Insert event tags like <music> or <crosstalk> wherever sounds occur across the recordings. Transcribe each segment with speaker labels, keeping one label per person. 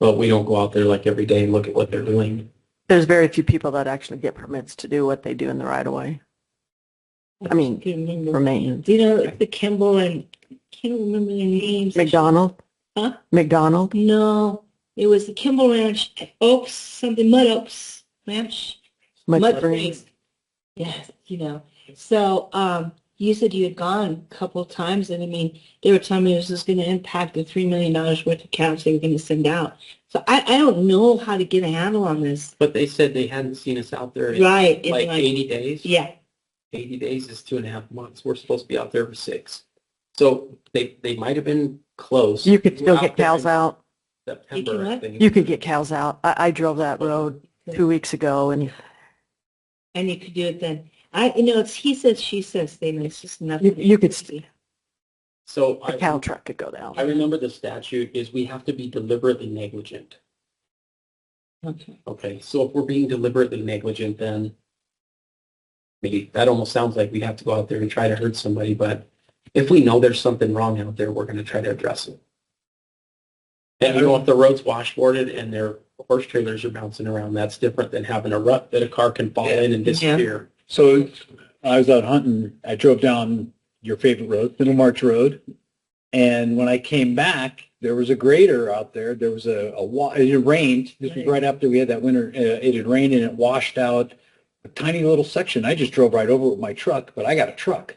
Speaker 1: but we don't go out there like every day and look at what they're doing.
Speaker 2: There's very few people that actually get permits to do what they do in the right of way. I mean,
Speaker 3: Can't remember.
Speaker 2: for maintenance.
Speaker 3: You know, the Kimball and, can't remember their names.
Speaker 2: McDonald?
Speaker 3: Huh?
Speaker 2: McDonald?
Speaker 3: No, it was the Kimball Ranch, Oaks, something, Mud Oaks Ranch.
Speaker 2: Mud Springs?
Speaker 3: Yes, you know. So um, you said you had gone a couple of times, and I mean, they were telling me this was going to impact the $3 million worth of counts they were going to send out. So I, I don't know how to get a handle on this.
Speaker 1: But they said they hadn't seen us out there in
Speaker 3: Right. it's
Speaker 1: like 80 days.
Speaker 3: Yeah,
Speaker 1: 80 days is two and a half months. We're supposed to be out there for six. So they, they might have been close.
Speaker 2: You could
Speaker 1: We
Speaker 2: still
Speaker 1: were
Speaker 2: get
Speaker 1: there
Speaker 2: cows
Speaker 1: in
Speaker 2: out.
Speaker 3: You
Speaker 1: September,
Speaker 3: can
Speaker 1: I
Speaker 3: what?
Speaker 1: think.
Speaker 2: You could get cows out. I, I drove that road two weeks ago and
Speaker 3: and you could do it then. I, you know, it's he says, she says thing. It's just
Speaker 2: you,
Speaker 3: nothing.
Speaker 2: you could, s-
Speaker 1: So
Speaker 2: a
Speaker 1: I,
Speaker 2: cow truck could go down.
Speaker 1: I remember the statute is we have to be deliberately negligent.
Speaker 3: Okay.
Speaker 1: Okay, so if we're being deliberately negligent, then maybe that almost sounds like we have to go out there and try to hurt somebody, but if we know there's something wrong out there, we're gonna try to address it. And you know, if the road's washboarded and their horse trailers are bouncing around, that's different than having a rut that a car can fall in and disappear.
Speaker 4: So I was out hunting. I drove down your favorite road, Middle March Road. And when I came back, there was a grader out there. There was a, a wa- it had rained. This was
Speaker 3: Right.
Speaker 4: right after we had that winter. Uh, it had rained and it washed out a tiny little section. I just drove right over it with my truck, but I got a truck.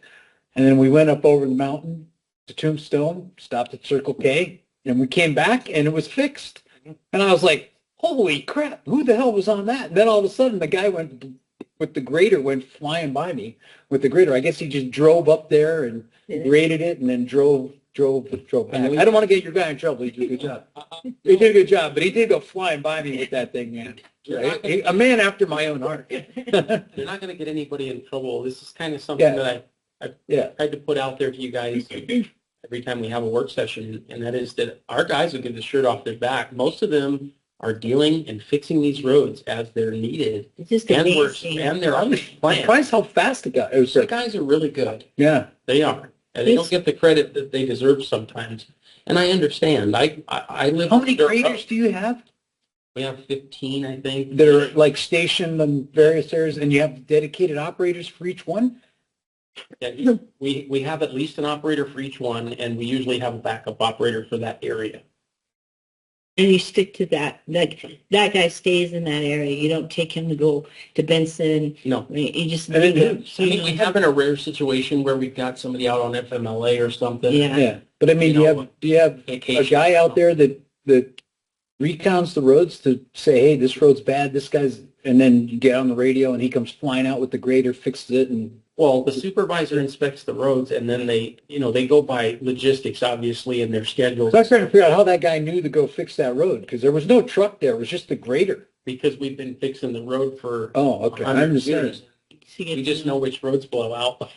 Speaker 4: And then we went up over the mountain to Tombstone, stopped at Circle K, and we came back and it was fixed. And I was like, holy crap, who the hell was on that? And then all of a sudden the guy went with the grader went flying by me with the grader. I guess he just drove up there and graded it and then drove drove drove back. I don't want to get your guy in trouble. He did a good <laughs> job. He did a good job, but he did go flying by me with that thing, man. Right? He- A man after my own heart. <laughs>
Speaker 1: You're not gonna get anybody in trouble. This is kind of
Speaker 4: Yeah.
Speaker 1: something that I, I
Speaker 4: Yeah.
Speaker 1: tried to put out there to you guys every time we have a work session, and that is that our guys will give the shirt off their back. Most of them are dealing and fixing these roads as they're needed,
Speaker 3: It's just
Speaker 1: and we're,
Speaker 3: amazing.
Speaker 1: and they're
Speaker 4: I
Speaker 1: on the
Speaker 4: was
Speaker 1: plan.
Speaker 4: surprised how fast it got. It was
Speaker 1: The
Speaker 4: like,
Speaker 1: guys are really good.
Speaker 4: yeah,
Speaker 1: They are. And they don't get the credit that they deserve sometimes. And I understand. I, I, I live.
Speaker 4: How many
Speaker 1: dirt
Speaker 4: graders
Speaker 1: road.
Speaker 4: do you have
Speaker 1: We have fifteen, I think.
Speaker 4: that are like stationed in various areas and you have dedicated operators for each one?
Speaker 1: Yeah, We, we have at least an operator for each one, and we usually have a backup operator for that area.
Speaker 3: And you stick to that. Like that guy stays in that area. You don't take him to go to Benson.
Speaker 1: No.
Speaker 3: You you just
Speaker 4: And it-
Speaker 3: leave him. So
Speaker 1: I
Speaker 3: you
Speaker 1: mean, we
Speaker 3: don't
Speaker 1: have
Speaker 3: have
Speaker 1: in a rare situation where we've got somebody out on FMLA or something.
Speaker 3: yeah.
Speaker 4: Yeah. But I mean,
Speaker 1: You
Speaker 4: do you
Speaker 1: know,
Speaker 4: have, do you have a guy out there that, that recounts the roads to say, hey, this road's bad, this guy's, and then you get on the radio and he comes flying out with the grader, fixes it and,
Speaker 1: Well, the supervisor inspects the roads and then they, you know, they go by logistics, obviously, and their schedules
Speaker 4: so I was trying to figure out how that guy knew to go fix that road because there was no truck there, it was just the grader.
Speaker 1: because we've been fixing the road for
Speaker 4: Oh,
Speaker 1: a
Speaker 4: okay, I
Speaker 1: hundred
Speaker 4: understand.
Speaker 1: years.
Speaker 3: So you
Speaker 1: We
Speaker 3: get
Speaker 1: just
Speaker 3: to-
Speaker 1: know which roads blow out.
Speaker 3: But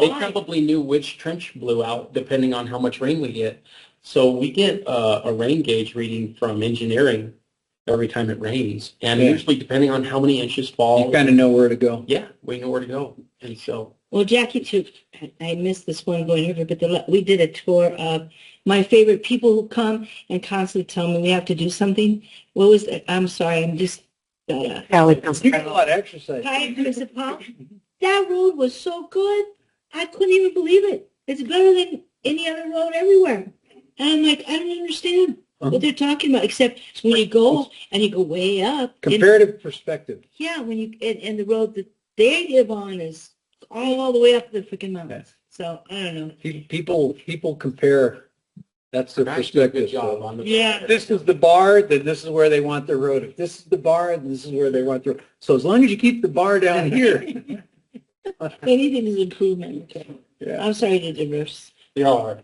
Speaker 1: They
Speaker 3: why?
Speaker 1: probably knew which trench blew out depending on how much rain we get. So we get uh, a rain gauge reading from engineering every time it rains. And
Speaker 4: Yeah.
Speaker 1: usually depending on how many inches fall.
Speaker 4: <laughs> You kind of know where to go.
Speaker 1: Yeah, we know where to go. And so,
Speaker 3: Well, Jackie took. I missed this one going over, but the, la- we did a tour of my favorite people who come and constantly tell me we have to do something. What was that? I'm sorry. I'm just. Uh,
Speaker 2: Alley comes
Speaker 4: You get a
Speaker 2: around.
Speaker 4: lot of exercise.
Speaker 3: Hi, Mr. Pop. That road was so good, I couldn't even believe it. It's better than any other road everywhere. And I'm like, I don't understand
Speaker 4: Uh-huh.
Speaker 3: what they're talking about, except when you go and you go way up. and-
Speaker 4: Comparative perspective.
Speaker 3: Yeah, when you, and, and the road that they live on is all, all the way up the freaking mountains. So, I don't know.
Speaker 4: Pe- People, people compare, that's their
Speaker 1: Max did a good
Speaker 4: perspective.
Speaker 1: job
Speaker 4: so.
Speaker 1: on the.
Speaker 3: Yeah.
Speaker 4: This is the bar, then this is where they want their road. If this is the bar, then this is where they want their, so as long as you keep the bar down here.
Speaker 3: Anything is improvement.
Speaker 4: Yeah.
Speaker 3: I'm sorry to diverse.
Speaker 1: They are.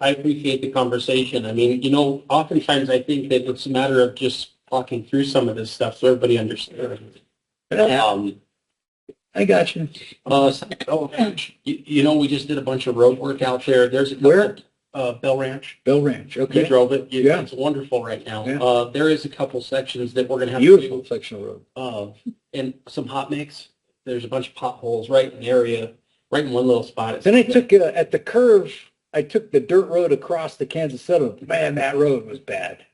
Speaker 1: I appreciate the conversation. I mean, you know, oftentimes I think that it's a matter of just talking through some of this stuff so everybody understands. Um,
Speaker 4: I got you. <laughs>
Speaker 1: uh, so- oh, you, you know, we just did a bunch of road work out there. There's a couple,
Speaker 4: Where?
Speaker 1: Uh, Bell Ranch.
Speaker 4: Bell Ranch,
Speaker 1: You
Speaker 4: okay.
Speaker 1: drove it. You-
Speaker 4: Yeah.
Speaker 1: It's wonderful right now.
Speaker 4: Yeah.
Speaker 1: Uh, there is a couple sections that we're gonna have to do.
Speaker 4: Beautiful section of road.
Speaker 1: uh, and some hot mix. There's a bunch of potholes right in the area, right in one little spot.
Speaker 4: Then I took, uh, at the curve, I took the dirt road across to Kansas settlement. Man, that road was bad.